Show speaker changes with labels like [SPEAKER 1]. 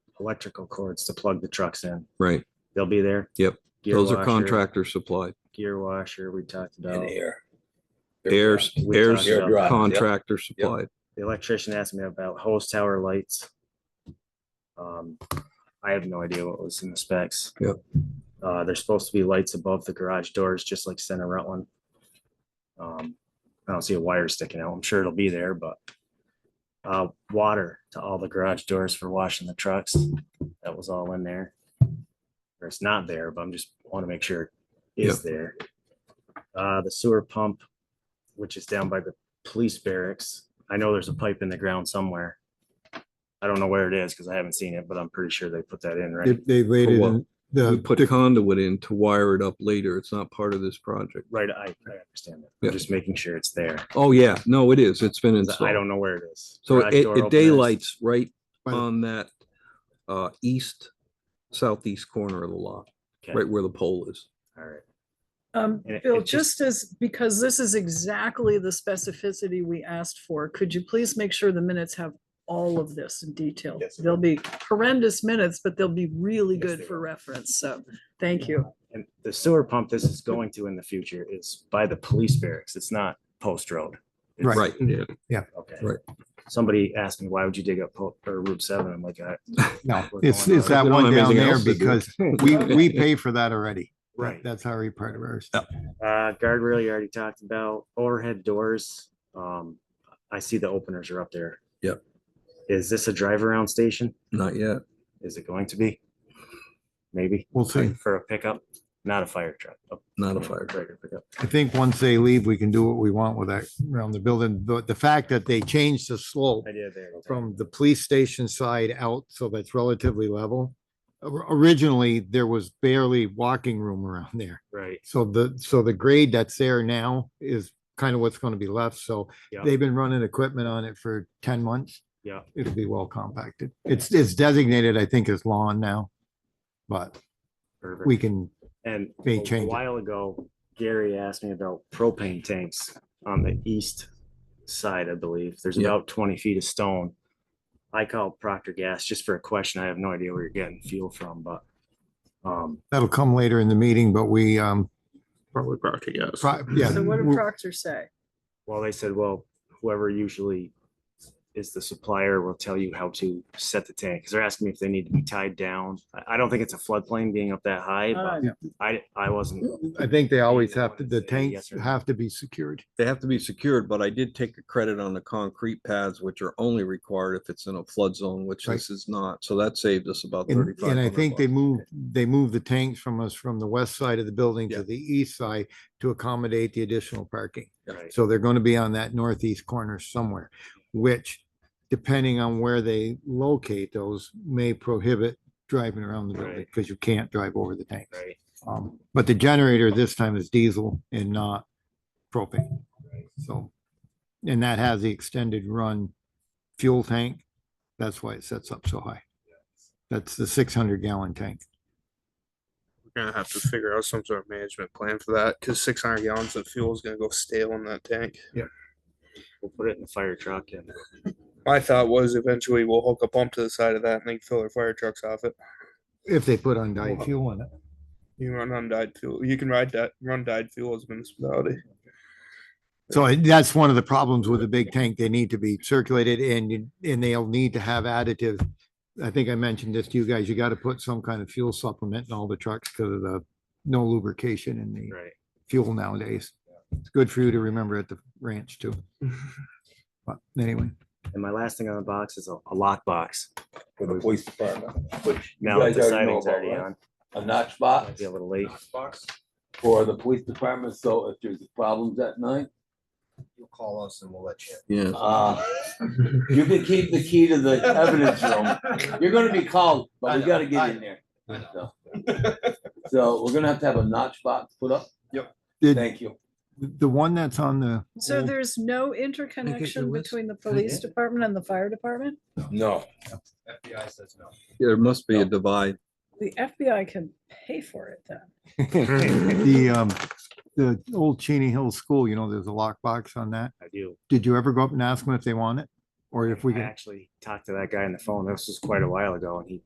[SPEAKER 1] electrical cords to plug the trucks in.
[SPEAKER 2] Right.
[SPEAKER 1] They'll be there.
[SPEAKER 2] Yep.
[SPEAKER 1] Gear
[SPEAKER 2] Those are
[SPEAKER 1] washer,
[SPEAKER 2] contractor supplied.
[SPEAKER 1] Gear washer, we talked about.
[SPEAKER 3] and air.
[SPEAKER 2] Airs,
[SPEAKER 1] We
[SPEAKER 2] airs
[SPEAKER 1] talked about-
[SPEAKER 3] Airdrop.
[SPEAKER 2] contractor supplied.
[SPEAKER 1] The electrician asked me about hose tower lights. Um, I have no idea what was in the specs.
[SPEAKER 2] Yep.
[SPEAKER 1] Uh, there's supposed to be lights above the garage doors, just like Center Rutland. Um, I don't see a wire sticking out. I'm sure it'll be there, but uh, water to all the garage doors for washing the trucks. That was all in there. Or it's not there, but I'm just want to make sure it is there. Uh, the sewer pump, which is down by the police barracks. I know there's a pipe in the ground somewhere. I don't know where it is because I haven't seen it, but I'm pretty sure they put that in, right?
[SPEAKER 4] They- They uh, laid it
[SPEAKER 2] what?
[SPEAKER 4] in
[SPEAKER 2] We
[SPEAKER 4] the,
[SPEAKER 2] put conduit in to wire it up later. It's not part of this project.
[SPEAKER 1] Right, I, I understand that.
[SPEAKER 2] Yeah.
[SPEAKER 1] I'm just making sure it's there. 'cause
[SPEAKER 2] Oh, yeah. No, it is. It's been
[SPEAKER 1] I
[SPEAKER 2] installed.
[SPEAKER 1] don't know where it is.
[SPEAKER 2] So
[SPEAKER 1] Garage
[SPEAKER 2] it,
[SPEAKER 1] door
[SPEAKER 2] it
[SPEAKER 1] openers,
[SPEAKER 2] daylights right
[SPEAKER 4] By the-
[SPEAKER 2] on that, uh, east, southeast corner of the lot,
[SPEAKER 1] okay,
[SPEAKER 2] right where the pole is.
[SPEAKER 1] All right.
[SPEAKER 5] Um,
[SPEAKER 1] And it-
[SPEAKER 5] Bill,
[SPEAKER 1] it just-
[SPEAKER 5] just as, because this is exactly the specificity we asked for, could you please make sure the minutes have all of this in detail?
[SPEAKER 1] Yes, they
[SPEAKER 5] They'll be horrendous minutes, but they'll be really
[SPEAKER 1] Yes,
[SPEAKER 5] good
[SPEAKER 1] they
[SPEAKER 5] for
[SPEAKER 1] will.
[SPEAKER 5] reference, so, thank you.
[SPEAKER 1] And the sewer pump this is going to in the future is by the police barracks. It's not post road. It's-
[SPEAKER 2] Right. Yeah.
[SPEAKER 1] Okay.
[SPEAKER 2] Right.
[SPEAKER 1] Somebody asked me, why would you dig up Po- or Route seven? I'm like, I,
[SPEAKER 4] no,
[SPEAKER 1] We're
[SPEAKER 4] it's,
[SPEAKER 1] going
[SPEAKER 4] it's
[SPEAKER 1] on.
[SPEAKER 4] that
[SPEAKER 2] We don't
[SPEAKER 4] one
[SPEAKER 2] have anything
[SPEAKER 4] down there
[SPEAKER 2] else to do.
[SPEAKER 4] because we, we pay for that already. That-
[SPEAKER 1] right.
[SPEAKER 4] That's already part of ours.
[SPEAKER 1] Uh, guardrail, you already talked about overhead doors. Um, I see the openers are up there.
[SPEAKER 2] Yep.
[SPEAKER 1] Is this a drive around station?
[SPEAKER 2] Not yet.
[SPEAKER 1] Is it going to be? Maybe
[SPEAKER 4] We'll see.
[SPEAKER 1] for a pickup, not a fire truck. a-
[SPEAKER 2] Not a fire.
[SPEAKER 1] Regular pickup.
[SPEAKER 4] I think once they leave, we can do what we want with that around the building. But the fact that they changed the slope
[SPEAKER 1] Idea there.
[SPEAKER 4] from the police station side out, so that's relatively level. Or- Originally, there was barely walking room around there.
[SPEAKER 1] Right.
[SPEAKER 4] So the, so the grade that's there now is kind of what's going to be left. So
[SPEAKER 1] Yeah.
[SPEAKER 4] they've been running equipment on it for ten months.
[SPEAKER 1] Yeah.
[SPEAKER 4] It'll be well compacted. It's, it's designated, I think, as lawn now. But
[SPEAKER 1] perfect.
[SPEAKER 4] we can,
[SPEAKER 1] And
[SPEAKER 4] They
[SPEAKER 1] a
[SPEAKER 4] change it.
[SPEAKER 1] while ago, Gary asked me about propane tanks on the east side, I believe. There's
[SPEAKER 2] Yeah.
[SPEAKER 1] about twenty feet of stone. I called Procter Gas just for a question. I have no idea where you're getting fuel from, but um,
[SPEAKER 4] that'll come later in the meeting, but we, um,
[SPEAKER 6] Probably Procter, yes.
[SPEAKER 4] pro- yeah. Mm-hmm.
[SPEAKER 5] So what did
[SPEAKER 4] we-
[SPEAKER 5] Proctor say?
[SPEAKER 1] well, they said, well, whoever usually is the supplier will tell you how to set the tank. Cause they're asking me if they need to be tied down. I, I don't think it's a floodplain being up that high, but
[SPEAKER 5] Uh,
[SPEAKER 1] I, I wasn't,
[SPEAKER 4] I think they always have to,
[SPEAKER 1] Wanted to say
[SPEAKER 4] the tanks
[SPEAKER 1] yes or no.
[SPEAKER 4] have to be secured.
[SPEAKER 2] They have to be secured, but I did take a credit on the concrete pads, which are only required if it's in a flood zone, which
[SPEAKER 4] Right.
[SPEAKER 2] this is not. So that saved us about
[SPEAKER 4] And,
[SPEAKER 2] thirty-five.
[SPEAKER 4] and I think they moved, they moved the tanks from us from the west side of the building
[SPEAKER 2] Yeah.
[SPEAKER 4] to the east side to accommodate the additional parking.
[SPEAKER 1] right.
[SPEAKER 4] So they're going to be on that northeast corner somewhere, which depending on where they locate those may prohibit driving around the building
[SPEAKER 1] Right.
[SPEAKER 4] because you can't drive over the tanks.
[SPEAKER 1] Right.
[SPEAKER 4] Um, but the generator this time is diesel and not propane. So, and that has the extended run fuel tank. That's why it sets up so high. That's the six hundred gallon tank.
[SPEAKER 6] We're gonna have to figure out some sort of management plan for that, cause six hundred gallons of fuel is gonna go stale in that tank.
[SPEAKER 1] We'll put it in the fire truck and
[SPEAKER 6] My thought was eventually we'll hook a pump to the side of that and they can fill their fire trucks off it.
[SPEAKER 4] If they put undyed fuel in it.
[SPEAKER 6] You run undyed fuel, you can ride that, run dyed fuel as a municipality.
[SPEAKER 4] So it- that's one of the problems with a big tank. They need to be circulated and, you- and they'll need to have additives. I think I mentioned this to you guys. You got to put some kind of fuel supplement in all the trucks because of the no lubrication in the
[SPEAKER 1] right.
[SPEAKER 4] fuel nowadays. It's good for you to remember at the ranch too. But anyway,
[SPEAKER 1] And my last thing on the box is a, a lockbox.
[SPEAKER 3] For the police department, which you
[SPEAKER 1] Now that
[SPEAKER 3] guys
[SPEAKER 1] the
[SPEAKER 3] already know
[SPEAKER 1] siding's
[SPEAKER 3] about,
[SPEAKER 1] already
[SPEAKER 3] right?
[SPEAKER 1] on,
[SPEAKER 3] A notch
[SPEAKER 1] might
[SPEAKER 3] box
[SPEAKER 1] be a little late.
[SPEAKER 3] for the police department, so if there's problems at night,
[SPEAKER 7] You'll call us and we'll let you.
[SPEAKER 2] Yeah,
[SPEAKER 3] uh, you can keep the key to the evidence room. You're gonna be called, but we gotta get in there. So- So we're gonna have to have a notch box put up.
[SPEAKER 4] the,
[SPEAKER 3] Thank you.
[SPEAKER 4] the one that's on the.
[SPEAKER 5] So
[SPEAKER 4] old-
[SPEAKER 5] there's no
[SPEAKER 4] there
[SPEAKER 5] interconnection
[SPEAKER 4] was.
[SPEAKER 5] between the police department and the fire department?
[SPEAKER 3] No.
[SPEAKER 7] FBI says no.
[SPEAKER 2] there must be a divide.
[SPEAKER 5] The FBI can pay for it then.
[SPEAKER 4] The, um, the old Cheney Hill School, you know, there's a lockbox on that.
[SPEAKER 1] I do.
[SPEAKER 4] Did you ever go up and ask them if they want it? Or if we
[SPEAKER 1] I
[SPEAKER 4] can?
[SPEAKER 1] Actually talked to that guy on the phone. This was quite a while ago and he